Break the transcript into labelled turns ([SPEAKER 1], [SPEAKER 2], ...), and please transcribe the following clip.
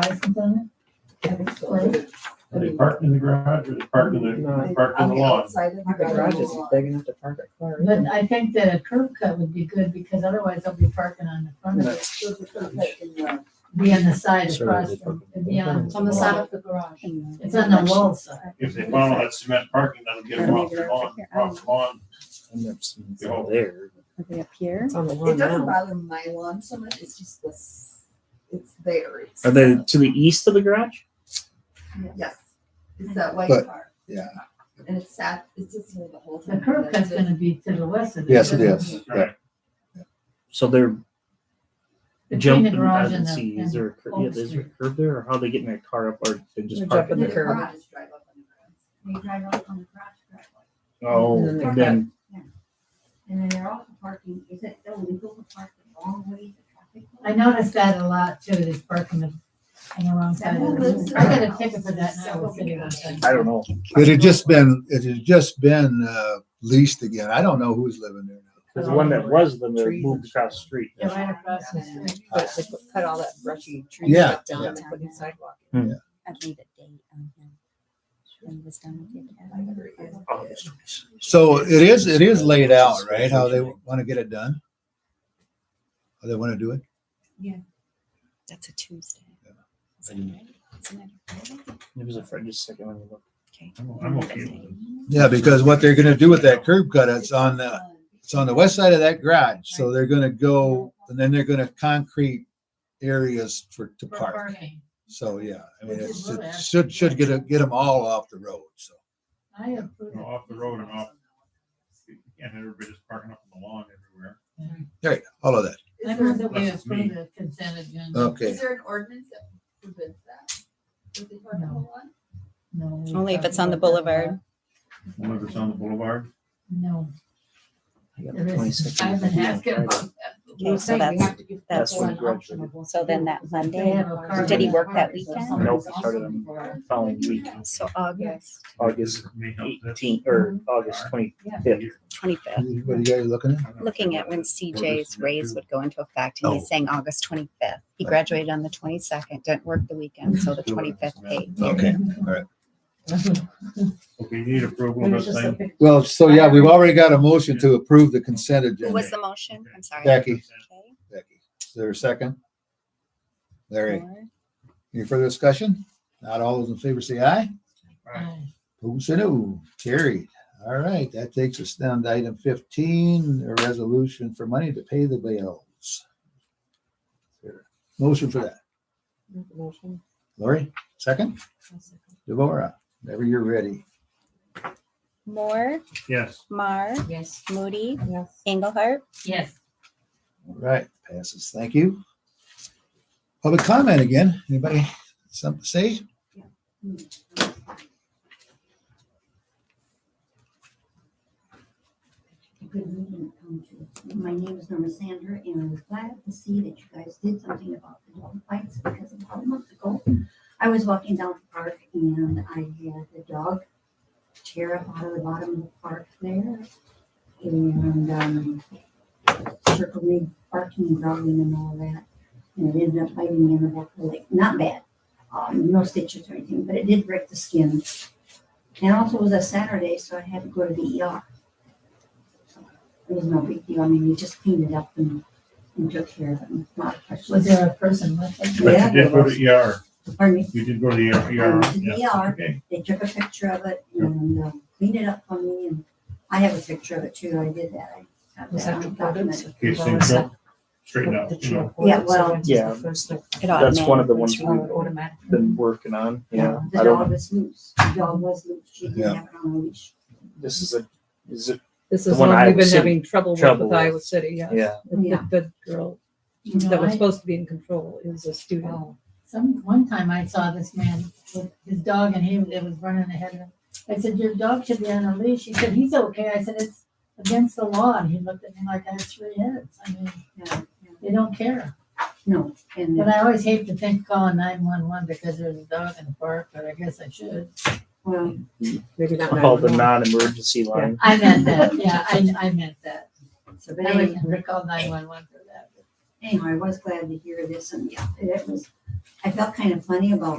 [SPEAKER 1] license on it? And explain.
[SPEAKER 2] Are they parked in the garage or they parked in the,
[SPEAKER 3] No.
[SPEAKER 2] parked in the lawn?
[SPEAKER 3] The garage is big enough to park a car. in.
[SPEAKER 1] But I think that a curb cut would be good because otherwise they'll be parking on the front of it. Be on the side
[SPEAKER 4] Sure,
[SPEAKER 1] across,
[SPEAKER 4] they
[SPEAKER 1] from-
[SPEAKER 4] park-
[SPEAKER 1] it'd be on.
[SPEAKER 4] It's
[SPEAKER 5] on the
[SPEAKER 1] wall.
[SPEAKER 5] side of the garage.
[SPEAKER 1] It's on the wall side.
[SPEAKER 2] If they follow that cement parking, that'll get them off the lawn, off the lawn.
[SPEAKER 4] I've never seen it out there.
[SPEAKER 6] Are they up here?
[SPEAKER 3] It's on the
[SPEAKER 7] It
[SPEAKER 3] lawn
[SPEAKER 7] doesn't
[SPEAKER 3] now.
[SPEAKER 7] bother my lawn so much, it's just this, it's there. It's-
[SPEAKER 4] Are they to the east of the garage?
[SPEAKER 7] Yes, it's that white
[SPEAKER 8] But-
[SPEAKER 7] car,
[SPEAKER 8] Yeah,
[SPEAKER 7] and it's sat, it's just here the whole
[SPEAKER 1] The
[SPEAKER 7] time.
[SPEAKER 1] curb cut's gonna be to the west of it.
[SPEAKER 8] yes, it
[SPEAKER 1] isn't
[SPEAKER 8] is. Yeah.
[SPEAKER 2] Right.
[SPEAKER 4] So they're
[SPEAKER 1] Between the
[SPEAKER 4] jumping. I
[SPEAKER 1] garage
[SPEAKER 4] didn't
[SPEAKER 1] and
[SPEAKER 4] see.
[SPEAKER 1] the,
[SPEAKER 4] Is
[SPEAKER 1] and
[SPEAKER 4] there a curb? Yeah,
[SPEAKER 1] Oak
[SPEAKER 4] is there
[SPEAKER 1] Street.
[SPEAKER 4] a curb there, or how they getting their car up, or they
[SPEAKER 3] They're
[SPEAKER 4] just parking
[SPEAKER 3] jumping the
[SPEAKER 4] there?
[SPEAKER 7] The
[SPEAKER 3] curb.
[SPEAKER 7] garage drive up on the
[SPEAKER 5] They drive off on the garage driveway.
[SPEAKER 4] Oh,
[SPEAKER 3] And then they
[SPEAKER 4] and then
[SPEAKER 5] And then they're also parking, is it illegal to park the long way the traffic?
[SPEAKER 1] I noticed that a lot too, this parking on the wrong side. of the road. I got a ticket for that and I was sitting on
[SPEAKER 4] I don't know.
[SPEAKER 8] It had just been, it had just been uh, leased again. I don't know who's living there now.
[SPEAKER 4] There's one that was then they
[SPEAKER 3] Trees.
[SPEAKER 4] moved across the street.
[SPEAKER 1] Yeah, right across the street.
[SPEAKER 3] But they put- cut all that brushy trees
[SPEAKER 8] Yeah,
[SPEAKER 3] up down
[SPEAKER 6] yeah.
[SPEAKER 3] and put in sidewalk.
[SPEAKER 6] I'd leave a date on him. When he was done with it.
[SPEAKER 4] Oh, it's-
[SPEAKER 8] So it is, it is laid out, right? How they want to get it done? How they want to do it?
[SPEAKER 6] That's a Tuesday. Is that
[SPEAKER 4] Mm.
[SPEAKER 6] right? Isn't it a Friday?
[SPEAKER 4] It was a Fri- just a second when you look.
[SPEAKER 6] Okay.
[SPEAKER 2] I'm okay with it.
[SPEAKER 8] Yeah, because what they're going to do with that curb cut, it's on the, it's on the west side of that garage. So they're going to go, and then they're going to concrete areas for, to
[SPEAKER 1] For
[SPEAKER 8] park.
[SPEAKER 1] parking.
[SPEAKER 8] So, yeah, I mean, it's, it
[SPEAKER 1] Yeah.
[SPEAKER 8] should, should get, a- get them all off the road, so.
[SPEAKER 1] I approve.
[SPEAKER 2] You know, Off the road and off. And everybody's parking up on the lawn everywhere.
[SPEAKER 8] All right, all of that.
[SPEAKER 1] I
[SPEAKER 7] garage.
[SPEAKER 1] move
[SPEAKER 7] Is
[SPEAKER 1] that we
[SPEAKER 2] That's me.
[SPEAKER 1] approve the consent agenda.
[SPEAKER 7] there,
[SPEAKER 8] Okay,
[SPEAKER 7] is there an ordinance that forbids that? Would they park on the
[SPEAKER 1] No.
[SPEAKER 7] lawn?
[SPEAKER 1] No. we
[SPEAKER 6] Only if
[SPEAKER 1] talked
[SPEAKER 6] it's on the
[SPEAKER 1] about that a lot.
[SPEAKER 6] boulevard.
[SPEAKER 2] Whoever's on the boulevard.
[SPEAKER 1] No.
[SPEAKER 4] I got the
[SPEAKER 1] There is,
[SPEAKER 4] 22nd
[SPEAKER 1] I've been
[SPEAKER 4] meeting on
[SPEAKER 1] asking
[SPEAKER 4] Friday.
[SPEAKER 1] about that.
[SPEAKER 6] Okay, so that's, that's,
[SPEAKER 4] That's when it graduated.
[SPEAKER 6] so then that
[SPEAKER 1] They
[SPEAKER 6] Monday,
[SPEAKER 1] have a car.
[SPEAKER 6] did he work that weekend?
[SPEAKER 4] Nope, it started on following week,
[SPEAKER 6] So August
[SPEAKER 4] August
[SPEAKER 2] May help that.
[SPEAKER 4] eighteenth or August twenty-fifth.
[SPEAKER 6] twenty-fifth.
[SPEAKER 8] what are you guys looking at?
[SPEAKER 6] Looking at when CJ's raise would go into effect, and he's saying August twenty-fifth. He
[SPEAKER 8] Right.
[SPEAKER 6] graduated on the twenty-second, didn't work the weekend, so the
[SPEAKER 2] Sure.
[SPEAKER 6] twenty-fifth paid.
[SPEAKER 8] Okay.
[SPEAKER 2] Okay, you need approval of this thing.
[SPEAKER 8] Well, so yeah, we've already got a motion to approve the consent
[SPEAKER 6] Who
[SPEAKER 8] agenda.
[SPEAKER 6] was the motion? I'm sorry.
[SPEAKER 8] Becky,
[SPEAKER 6] Okay.
[SPEAKER 8] Becky, is there a second? Larry,
[SPEAKER 6] Moore.
[SPEAKER 8] any further discussion? Not all those in favor say aye. Who say no? Carried. All right, that takes us down to item fifteen, a resolution for money to pay the bills. Motion for that.
[SPEAKER 3] Make a motion.
[SPEAKER 8] Lori, second? Devorah, whenever you're ready.
[SPEAKER 6] Moore,
[SPEAKER 2] Yes.
[SPEAKER 6] Mar,
[SPEAKER 1] Yes.
[SPEAKER 6] Moody,
[SPEAKER 3] Yes.
[SPEAKER 6] Engelhardt.
[SPEAKER 1] Yes.
[SPEAKER 8] All right, passes. Thank you. Public comment again. Anybody something to say?
[SPEAKER 5] Good meeting to come to. My name is Norma Sander, and I was glad to see that you guys did something about the dog bites because about a month ago, I was walking down the park and I had the dog tear up out of the bottom of the park there and um, circled me, barking and growling and all that. And it ended up biting me in the back of the leg. Not bad, um, no stitches or anything, but it did break the skin. And also it was a Saturday, so I had to go to the ER. It was no big deal. I mean, we just cleaned it up and, and took care of it. and Not a
[SPEAKER 1] Was
[SPEAKER 5] question.
[SPEAKER 1] there a person with it?
[SPEAKER 2] But you did go to ER.
[SPEAKER 5] Pardon me.
[SPEAKER 2] You did go to the ER.
[SPEAKER 5] went to the
[SPEAKER 2] Yes,
[SPEAKER 5] ER.
[SPEAKER 2] Okay.
[SPEAKER 5] They took a picture of it and um, cleaned it up for me. And I have a picture of it too. I did that. I have
[SPEAKER 3] Was
[SPEAKER 5] that
[SPEAKER 3] that
[SPEAKER 5] on
[SPEAKER 3] recorded?
[SPEAKER 5] document.
[SPEAKER 2] In case things don't straighten out, you know.
[SPEAKER 5] Yeah, well-
[SPEAKER 4] Yeah.
[SPEAKER 6] It
[SPEAKER 4] That's one of
[SPEAKER 6] automatically-
[SPEAKER 4] the ones we've
[SPEAKER 3] Automatic.
[SPEAKER 4] been working on, yeah.
[SPEAKER 5] The
[SPEAKER 4] I don't-
[SPEAKER 5] dog was loose. The dog was loose. She
[SPEAKER 8] Yeah.
[SPEAKER 5] didn't have it on a leash.
[SPEAKER 4] This is a, is it,
[SPEAKER 3] This
[SPEAKER 4] The
[SPEAKER 3] is
[SPEAKER 4] one
[SPEAKER 3] one
[SPEAKER 4] Iowa
[SPEAKER 3] we've been
[SPEAKER 4] City-
[SPEAKER 3] having trouble with
[SPEAKER 4] trouble
[SPEAKER 3] with
[SPEAKER 4] with.
[SPEAKER 3] Iowa City, yes.
[SPEAKER 4] Yeah.
[SPEAKER 3] The- The,
[SPEAKER 5] Yeah.
[SPEAKER 3] the girl
[SPEAKER 1] You know,
[SPEAKER 3] that was
[SPEAKER 1] I-
[SPEAKER 3] supposed to be in control is a student.
[SPEAKER 1] Oh, Some, one time I saw this man with his dog and he, it was running ahead of him. I said, your dog should be on a leash. He said, he's okay. I said, it's against the law. And he looked at me like I had three heads. I mean,
[SPEAKER 5] Yeah, yeah.
[SPEAKER 1] they don't care.
[SPEAKER 5] No, and
[SPEAKER 1] But I always hate to think calling nine one one because there's a dog in the park, but I guess I should.
[SPEAKER 5] well,
[SPEAKER 3] Maybe not.
[SPEAKER 4] called the
[SPEAKER 3] 911.
[SPEAKER 4] non-emergency line.
[SPEAKER 1] I meant that. Yeah, I, I meant that.
[SPEAKER 5] so but
[SPEAKER 1] I
[SPEAKER 5] anyway,
[SPEAKER 1] would never call nine one one for that.
[SPEAKER 5] anyhow, I was glad to hear this and yeah, it was, I felt kind of funny about